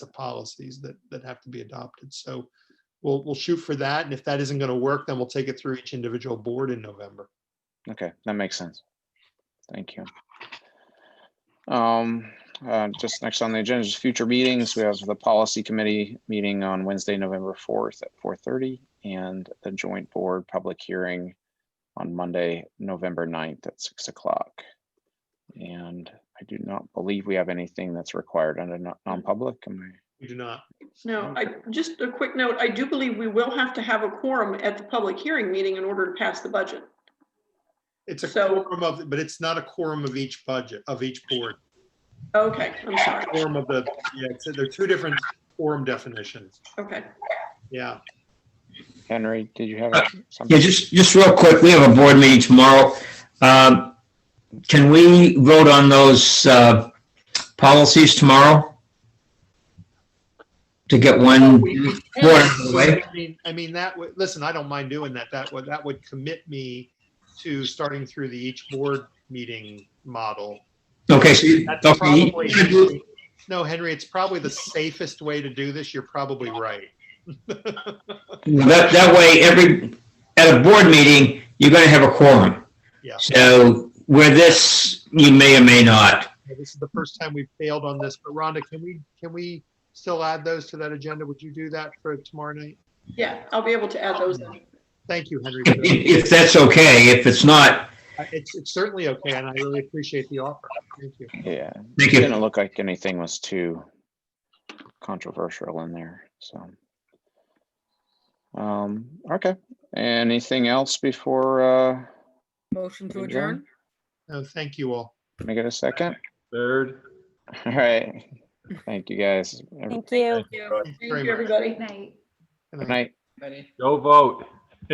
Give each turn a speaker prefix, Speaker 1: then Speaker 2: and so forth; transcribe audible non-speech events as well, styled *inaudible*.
Speaker 1: the policies that, that have to be adopted. So we'll, we'll shoot for that. And if that isn't going to work, then we'll take it through each individual board in November.
Speaker 2: Okay, that makes sense. Thank you. Um, uh, just next on the agenda is future meetings. We have the policy committee meeting on Wednesday, November fourth at four thirty. And the joint board public hearing on Monday, November 9th at six o'clock. And I do not believe we have anything that's required under non- non-public. Am
Speaker 1: We do not.
Speaker 3: No, I, just a quick note, I do believe we will have to have a quorum at the public hearing meeting in order to pass the budget.
Speaker 1: It's a
Speaker 3: So-
Speaker 1: quorum of, but it's not a quorum of each budget, of each board.
Speaker 3: Okay, I'm sorry.
Speaker 1: Quorum of the, yeah, it's- they're two different quorum definitions.
Speaker 3: Okay,
Speaker 1: Yeah.
Speaker 2: I- Henry, did you have
Speaker 4: Uh, Yeah,
Speaker 2: something?
Speaker 4: just, just real quick, we have a board meeting tomorrow. Um, Can we vote on those uh, policies tomorrow? To get
Speaker 1: Oh,
Speaker 4: one, Board, wait.
Speaker 1: I mean, I mean, that would, listen, I don't mind doing that. That would, that would commit me to starting through the each board meeting model.
Speaker 4: okay, so, you-
Speaker 1: That's
Speaker 4: okay,
Speaker 1: probably,
Speaker 4: you-
Speaker 1: no, Henry, it's probably the safest way to do this. You're probably right.
Speaker 4: that, that way, every, at a board meeting, you're gonna have a quorum.
Speaker 1: Yeah.
Speaker 4: So where this, you may or may not.
Speaker 1: Okay, This is the first time we've failed on this, but Rhonda, can we, can we still add those to that agenda? Would you do that for tomorrow night?
Speaker 3: yeah, I'll be able to add those in.
Speaker 1: Thank you, Henry. for
Speaker 4: *laughs*
Speaker 1: that.
Speaker 4: If, if that's okay, if it's not,
Speaker 1: I- It's, it's certainly okay, and I really appreciate the offer. Thank you.
Speaker 2: Yeah,
Speaker 4: thank
Speaker 2: it
Speaker 4: you.
Speaker 2: didn't look like anything was too controversial in there, so. Um, okay, anything else before, uh,
Speaker 5: Motion to
Speaker 2: Adjourn?
Speaker 5: adjourn?
Speaker 1: No, thank you all.
Speaker 2: can I get a second? *laughs*
Speaker 6: Third.
Speaker 2: All right, thank you guys. Have a
Speaker 7: Thank you.
Speaker 3: Thank you,
Speaker 1: Very
Speaker 3: Thank
Speaker 1: much.
Speaker 3: you, everybody.
Speaker 7: Night.
Speaker 1: Good
Speaker 2: Good
Speaker 1: night.
Speaker 2: night.
Speaker 6: Go vote.